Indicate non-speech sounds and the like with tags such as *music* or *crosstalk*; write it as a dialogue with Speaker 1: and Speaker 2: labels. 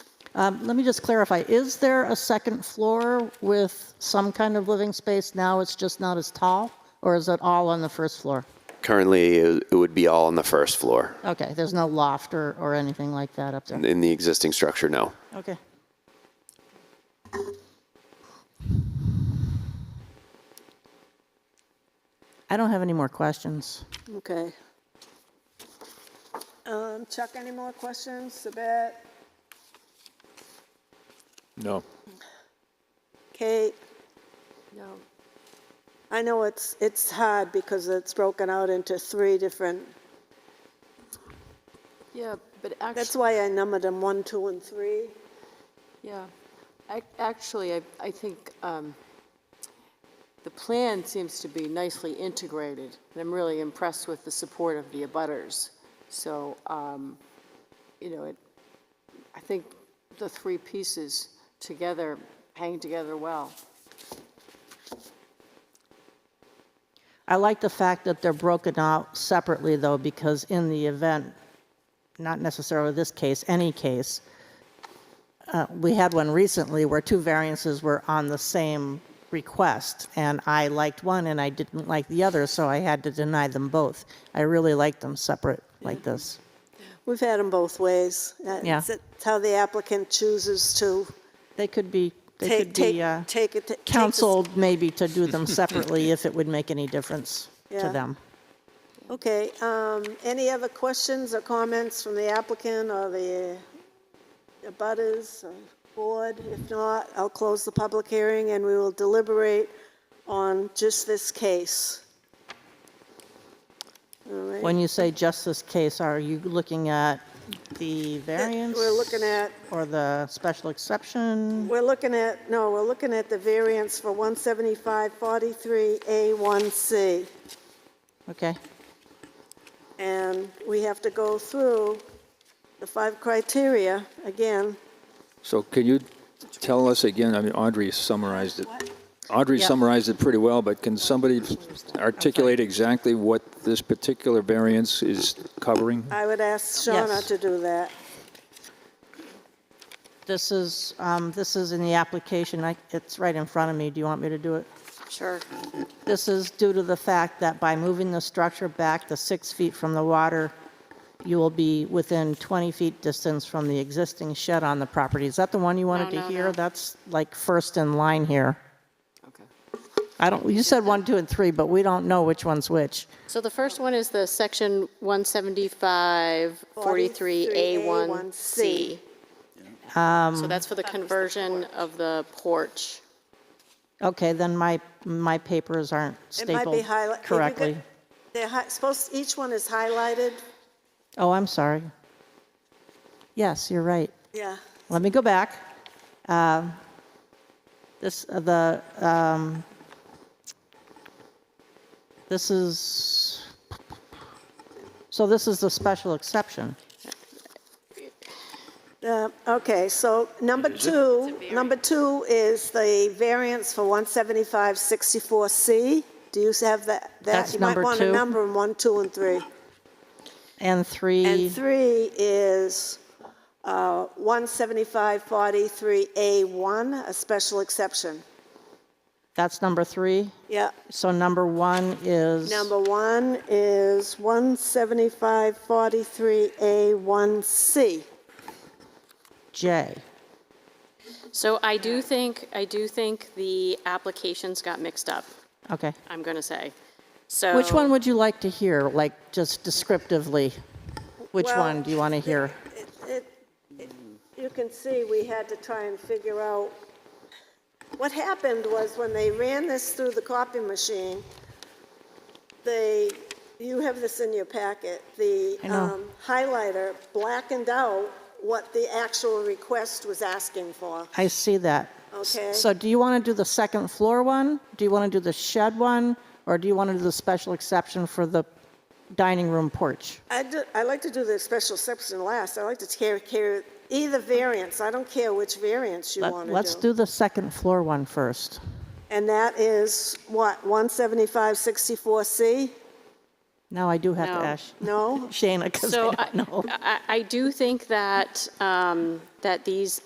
Speaker 1: Um, Let me just clarify, is there a second floor with some kind of living space? Now it's just not as tall, or is it all on the first floor?
Speaker 2: Currently, it it would be all on the first floor.
Speaker 1: Okay, there's no loft or, or anything like that up there?
Speaker 2: In the existing structure, no.
Speaker 1: Okay. I don't have any more questions.
Speaker 3: Okay. Um, Chuck, any more questions? Sabette,
Speaker 4: No.
Speaker 3: Kate? No. I know it's, it's hard because it's broken out into three different,
Speaker 5: Yeah, but
Speaker 3: that's
Speaker 5: actually,
Speaker 3: why I numbered them one, two, and three.
Speaker 5: yeah, Ac- actually, I, I think um, the plan seems to be nicely integrated, and I'm really impressed with the support of the abutters. So, um, you know, it, I think the three pieces together hang together well.
Speaker 1: I like the fact that they're broken out separately, though, because in the event, not necessarily this case, any case, uh, we had one recently where two variances were on the same request, and I liked one and I didn't like the other, so I had to deny them both. I really like them separate like this.
Speaker 3: We've had them both ways. Uh,
Speaker 1: Yeah.
Speaker 3: It's it's how the applicant chooses to
Speaker 1: They could be, they
Speaker 3: take,
Speaker 1: could
Speaker 3: take,
Speaker 1: be uh,
Speaker 3: take it. take the-
Speaker 1: counseled maybe to do them separately if it would make any difference to
Speaker 3: Yeah.
Speaker 1: them.
Speaker 3: Okay, um, any other questions or comments from the applicant or the abutters or board? If not, I'll close the public hearing and we will deliberate on just this case. All right.
Speaker 1: When you say just this case, are you looking at the variance?
Speaker 3: We're looking at,
Speaker 1: Or the special exception?
Speaker 3: we're looking at, no, we're looking at the variance for 175-43A1C.
Speaker 1: Okay,
Speaker 3: And we have to go through the five criteria again.
Speaker 4: So can you tell us again, I mean, Audrey summarized it. Audrey
Speaker 1: Yeah.
Speaker 4: summarized it pretty well, but can somebody articulate exactly what this particular variance is covering?
Speaker 3: I would ask Shauna
Speaker 1: Yes.
Speaker 3: to do that.
Speaker 1: this is, um, this is in the application, I, it's right in front of me, do you want me to do it?
Speaker 5: Sure.
Speaker 1: This is due to the fact that by moving the structure back the six feet from the water, you will be within 20 feet distance from the existing shed on the property. Is that the one you wanted to
Speaker 5: no,
Speaker 1: hear?
Speaker 5: no.
Speaker 1: That's like first in line here.
Speaker 5: Okay.
Speaker 1: I don't, you said one, two, and three, but we don't know which one's which.
Speaker 6: So the first one is the section 175-43A1C. So that's for the conversion of the porch.
Speaker 1: Okay, then my, my papers aren't
Speaker 3: It might be
Speaker 1: stapled
Speaker 3: highlighted.
Speaker 1: correctly.
Speaker 3: They're hi- supposed, each one is highlighted,
Speaker 1: Oh, I'm sorry. Yes, you're right.
Speaker 3: yeah.
Speaker 1: Let me go back. Um, This, uh, the, um, this is, so this is the special exception.
Speaker 3: Uh, Okay, so number two, number two is the variance for 175-64C. Do you have that? that?
Speaker 1: That's number
Speaker 3: You might want to
Speaker 1: two. E.
Speaker 3: number 'em, one, two, and three.
Speaker 1: And three,
Speaker 3: And three is uh, 175-43A1, a special exception.
Speaker 1: that's number three.
Speaker 3: Yeah.
Speaker 1: So number one is,
Speaker 3: Number one is 175-43A1C.
Speaker 1: J.
Speaker 6: So I do think, I do think the applications got mixed up,
Speaker 1: Okay.
Speaker 6: I'm going to say.
Speaker 3: Oh.
Speaker 6: So.
Speaker 1: Which one would you like to hear, like, just descriptively? Which
Speaker 3: Well,
Speaker 1: one do you want to hear?
Speaker 3: It- it- You can see, we had to try and figure out, what happened was when they ran this through the copy machine, they, you have this in your packet, the
Speaker 1: I know.
Speaker 3: um, highlighter blackened out what the actual request was asking for.
Speaker 1: I see that. S-
Speaker 3: Okay.
Speaker 1: So do you want to do the second floor one? Do you want to do the shed one? Or do you want to do the special exception for the dining room porch?
Speaker 3: I do, I like to do the special exception last, I like to care, care, either variance, I don't care which variance you
Speaker 1: Let-
Speaker 3: want to do.
Speaker 1: Let's do the second floor one first.
Speaker 3: And that is, what, 175-64C?
Speaker 1: Now I do have to
Speaker 6: No.
Speaker 1: ask
Speaker 3: No?
Speaker 1: *laughs* Shana, because I
Speaker 6: So
Speaker 1: don't know.
Speaker 6: I, I do think that, um, that these